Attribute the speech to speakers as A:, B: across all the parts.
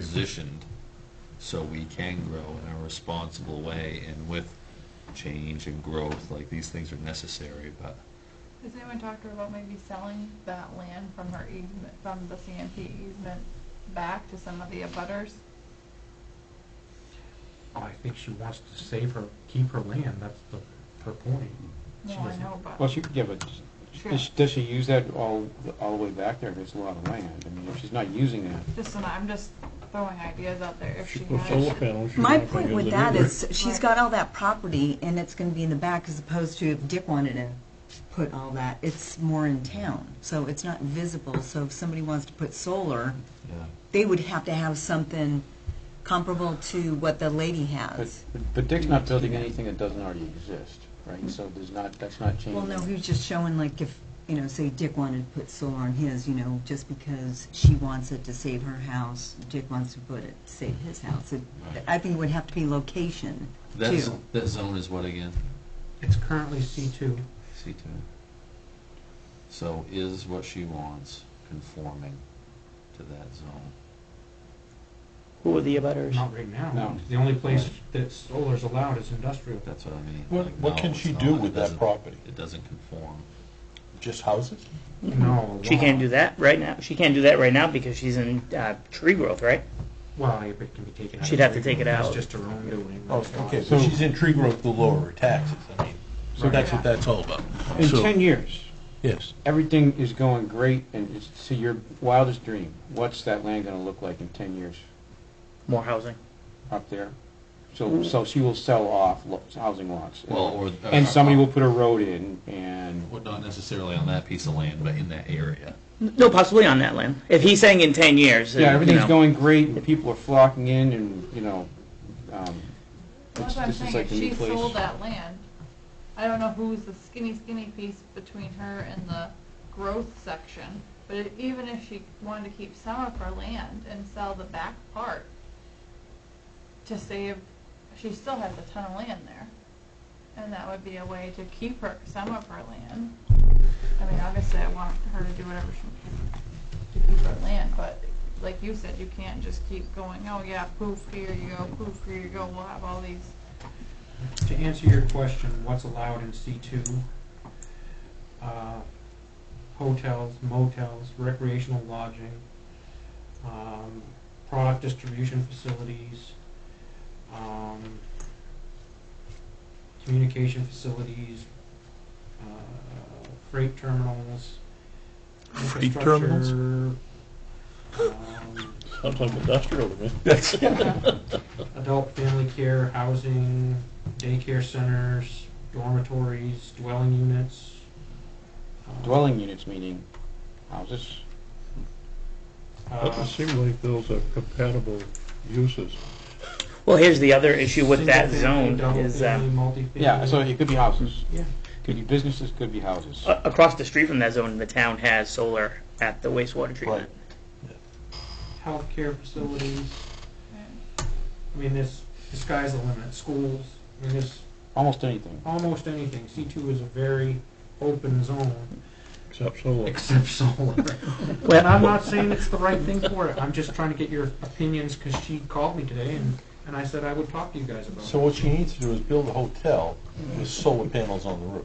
A: positioned so we can grow in a responsible way and with change and growth, like these things are necessary, but
B: Has anyone talked to her about maybe selling that land from her easement, from the CMP easement back to some of the abutters?
C: I think she wants to save her, keep her land, that's the, her point.
B: No,
C: She
B: I
C: doesn't.
B: know,
D: Well,
B: but,
D: she could give it,
B: Sure.
D: does- does she use that all, all the way back there, if it's a lot of land? I mean, if she's not using that,
B: just, an- I'm just throwing ideas out there if she
E: She puts solar
B: has.
E: panels. she's
F: My
E: not gonna
F: point
E: use
F: with
E: it
F: that
E: either.
F: is, she's got all that property, and it's gonna be in the back, as opposed to if Dick wanted to put all that, it's more in town, so it's not visible, so if somebody wants to put solar,
A: yeah.
F: they would have to have something comparable to what the lady
D: but,
F: has.
D: but Dick's not building anything that doesn't already exist, right? So there's not, that's not changing.
F: Well, no, he was just showing like if, you know, say Dick wanted to put solar on his, you know, just because she wants it to save her house, Dick wants to put it to save his house. It- I think it would have to be location,
A: That's,
F: too.
A: that zone is what again?
C: It's currently C two.
A: C two. So is what she wants conforming to that zone?
G: Who are the abutters?
C: Not right now.
D: No.
C: The only place that solar's allowed is industrial.
A: That's what I mean.
E: What,
A: like,
E: what
A: no,
E: can
A: it's
E: she
A: not.
E: do
A: It
E: with that
A: doesn't-
E: property?
A: It doesn't conform.
E: Just houses?
C: No.
G: She can't
C: law-
G: do that right now. She can't do that right now because she's in uh, tree growth, right?
C: Well, if it can be taken out.
G: She'd
C: of
G: have to
C: tree
G: take it
C: growth,
G: out.
C: That's just her own doing.
E: Oh,
C: that's not-
E: okay, so
D: So-
E: she's in tree growth, will lower her taxes, I mean, so that's what that's all about.
D: In
E: So-
D: ten years,
E: Yes,
D: everything is going great, and it's to your wildest dream, what's that land gonna look like in ten years
G: More housing.
D: up there? So, so she will sell off lo- housing lots.
A: Well, or. uh,
D: And somebody will put a road in, and
A: Well, not necessarily on that piece of land, but in that area.
G: No, possibly on that land. If he's saying in ten years,
D: Yeah, everything's
G: you know,
D: going great, and people are flocking in, and, you know, um,
B: That's
D: it's-
B: what I'm
D: this is
B: saying, if
D: like the
B: she
D: new
B: sold
D: place.
B: that land, I don't know who's the skinny, skinny piece between her and the growth section, but it- even if she wanted to keep some of her land and sell the back part to save, she still has a ton of land there. And that would be a way to keep her, some of her land. I mean, obviously, I want her to do whatever she can to keep her land, but like you said, you can't just keep going, oh yeah, poof, here you go, poof, here you go, we'll have all these.
C: To answer your question, what's allowed in C two? Hotels, motels, recreational lodging, um, product distribution facilities, um, communication facilities, uh, freight terminals.
E: Freight terminals?
C: infrastructure, um,
E: sounds like industrial to me.
C: adult family care, housing, daycare centers, dormitories, dwelling units. uh,
D: dwelling units, meaning houses.
C: uh,
E: Doesn't seem Uh, like those are compatible uses.
G: Well, here's the other issue with that
C: single-family,
G: zone is uh,
C: Double-family, multifamily.
D: Yeah, so it could be houses.
C: Yeah.
D: Could be businesses, could be houses.
G: a- across the street from that zone, the town has solar at the wastewater treatment.
C: Healthcare facilities, I mean, there's, the sky's the limit, schools, I mean, there's
D: Almost anything.
C: almost anything. C two is a very open zone,
E: Except solar.
C: except solar. And
G: Well,
C: I'm not saying it's the right thing for it, I'm just trying to get your opinions, because she called me today, and, and I said I would talk to you guys about it.
E: So what she needs to do is build a hotel with solar panels on the roof.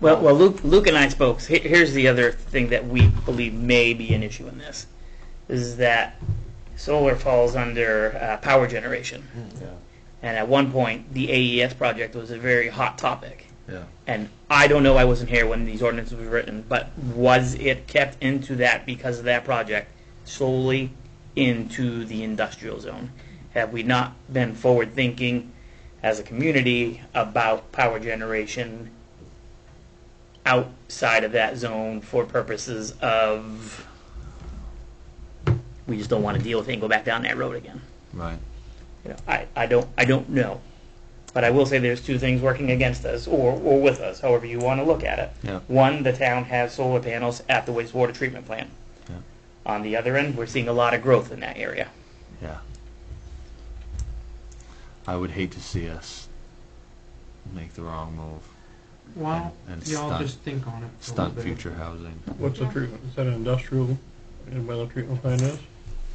G: well, well, Luke, Luke and I spoke. Here- Here's the other thing that we believe may be an issue in this, is that solar falls under uh, power generation.
E: Yeah.
G: And at one point, the AES project was a very hot topic.
A: Yeah.
G: And I don't know, I wasn't here when these ordinances were written, but was it kept into that because of that project solely into the industrial zone? Have we not been forward thinking as a community about power generation outside of that zone for purposes of, we just don't want to deal with it and go back down that road again?
A: Right.
G: you know, I, I don't I don't know. But I will say there's two things working against us or, or with us, however you want to look at it.
A: Yeah.
G: One, the town has solar panels at the wastewater treatment plant.
A: Yeah.
G: On the other end, we're seeing a lot of growth in that area.
A: Yeah. I would hate to see us make the wrong move
C: Well,
A: And- and
C: y'all
A: stunt-
C: just think on it. for a little
A: stunt
C: bit.
A: future housing.
E: What's the treatment, is that industrial, environmental treatment plant is?